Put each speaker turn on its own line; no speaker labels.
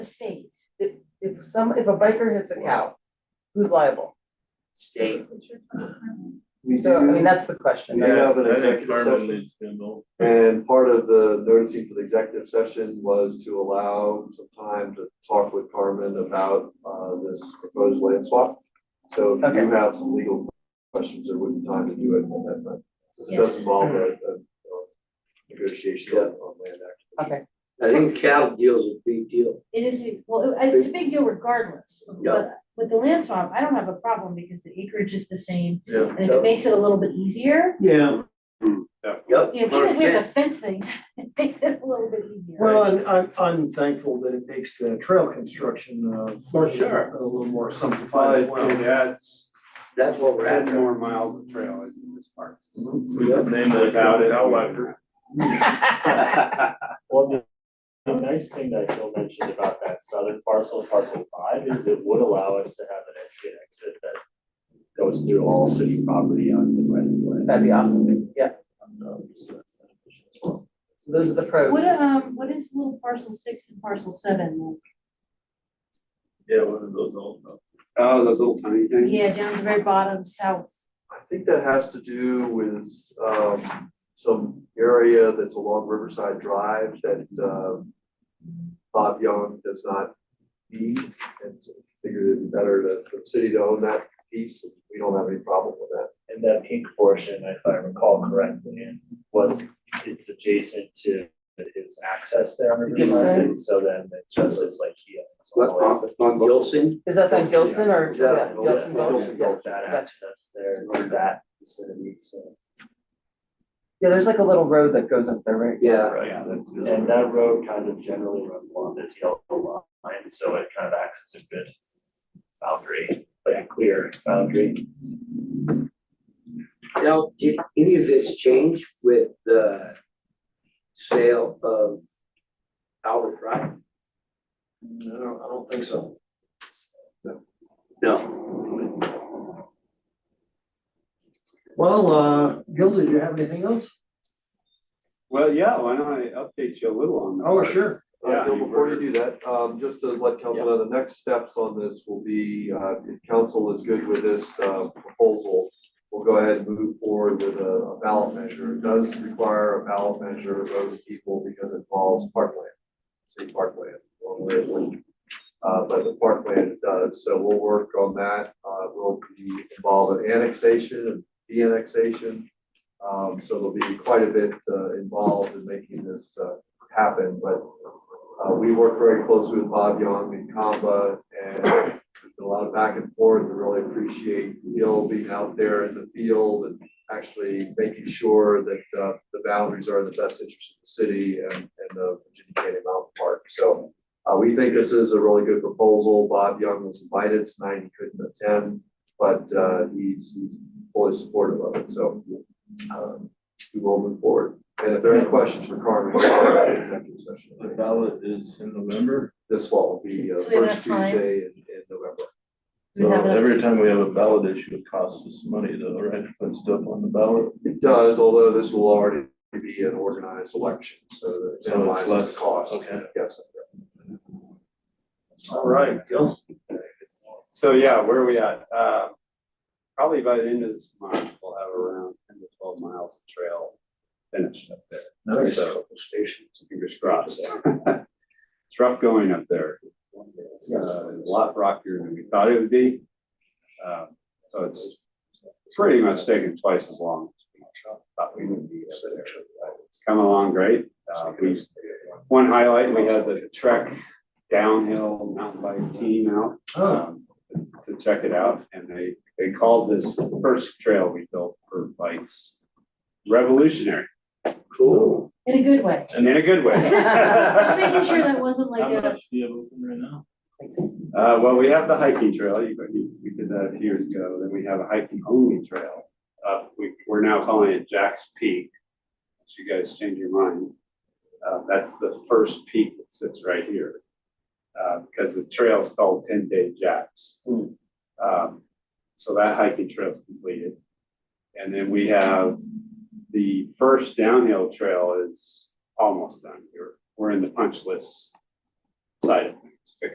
if some, if a biker hits a cow, who's liable?
state.
We
So, I mean,
do,
that's the question,
We
right?
have an
I think
executive
Carmen
session.
needs to know.
and part of the noticing for the executive session was to allow some time to talk with Carmen about, uh, this proposed land swap. So if
Okay.
you have some legal questions, there would be time to do it on that time, since it
Yes.
does involve a, a, uh, negotiation on on land
Okay,
acquisition.
I think cattle deal's a big deal.
It is, well, it- it's a big deal regardless, of-
Yeah.
but with the land swap, I don't have a problem because the acreage is the same.
Yeah.
And if it makes it a little bit easier,
Yeah. Yep.
you know, even if we have to fence things, it makes it a little bit easier.
Well, and I'm, I'm thankful that it makes the trail construction, uh,
For sure.
a little more simplified. as
Well,
well.
that's
That's what we're
ten
after.
more miles of trail in this park.
We could name it
Without it.
Cowlifer.
Well, the, the nice thing that Bill mentioned about that southern parcel, parcel five, is it would allow us to have an entry and exit that goes through all city property onto right of way.
that'd be awesome, yeah,
Um, so that's beneficial as well.
so those are the pros.
What, um, what is little parcel six and parcel seven?
Yeah, one of those old.
Oh, those little tiny
like?
things.
Yeah, down at the very bottom, south.
I think that has to do with, um, some area that's along Riverside Drive that, um, Bob Young does not need, and so figured it'd be better to, for the city to own that piece, and we don't have any problem with that.
And that pink portion, if I recall correctly, was, it's adjacent to his access there on
The
Riverside,
Gibson?
and so then it just is like he.
What, on, on both-
Gilson,
Is that that Gilson or, yeah,
Yeah.
Gilson
Yeah.
Gulch?
Gilson
Yeah.
Gulch.
That
Gotcha.
access there to that vicinity, so.
Yeah, there's like a little road that goes up there, right?
Yeah.
Right, and that road kind of generally runs along this yellow line, so it kind of acts as a good boundary, like a clear boundary.
Now, did any of this change with the sale of Albert Fry?
No, I don't- I don't think so.
No.
Well, uh, Gilda, do you have anything else?
Well, yeah, why don't I update you a little on that?
Oh, sure.
Uh,
Yeah,
Bill,
you
before you
were-
do that, um, just to let council know, the next steps on this will be, uh, if council is good with this, uh, proposal, we'll go ahead and move forward with a- a ballot measure. It does require a ballot measure of the people because it involves parkland, city parkland, one way of link. Uh, but the parkland does, so we'll work on that. Uh, we'll be involved in annexation and de-annexation. Um, so there'll be quite a bit, uh, involved in making this, uh, happen, but uh, we work very closely with Bob Young and Kamba and there's been a lot of back and forth. We really appreciate Gil being out there in the field and actually making sure that uh, the boundaries are in the best interest of the city and, and the Virginia Canyon Mountain Park. So uh, we think this is a really good proposal. Bob Young was invited tonight. He couldn't attend, but uh, he's, he's fully supportive of it. So um, we will move forward. And if there are any questions for Carmen, we'll go back to executive session
The ballot is in November,
this fall will be uh,
So we have
first
time.
Tuesday in, in November.
Do we
so
have enough
every time we have a ballot issue, it costs us money though, right, to put stuff on the ballot.
It does, although this will already be an organized election, so that
So
it
it's
minimizes
less-
the cost.
okay.
Yes.
All right, Gil.
So, yeah, where are we at? Uh, probably by the end of this month, we'll have around ten to twelve miles of trail finished up there.
Nice.
So, couple stations, fingers crossed. It's rough going up there. It's uh, a lot rockier than we thought it would be. Um, So it's pretty much taken twice as long. as we Thought we would be up there. It's come along great. Uh, we- One highlight, we had the Trek downhill mountain bike team out
Oh,
um, to check it out, and they, they called this first trail we built for bikes revolutionary,
Cool.
In a good way.
and in a good way.
Just making sure that wasn't like
How
a,
much do you have open right now?
Uh, well, we have the hiking trail, you, you- we did that a few years ago, then we have a hiking only trail. Uh, we, we're now calling it Jack's Peak, if you guys change your mind. Uh, that's the first peak that sits right here. Uh, because the trail's called Ten Day Jacks. Um, so that hiking trail's completed. And then we have, the first downhill trail is almost done, we're, we're in the punch list side of it.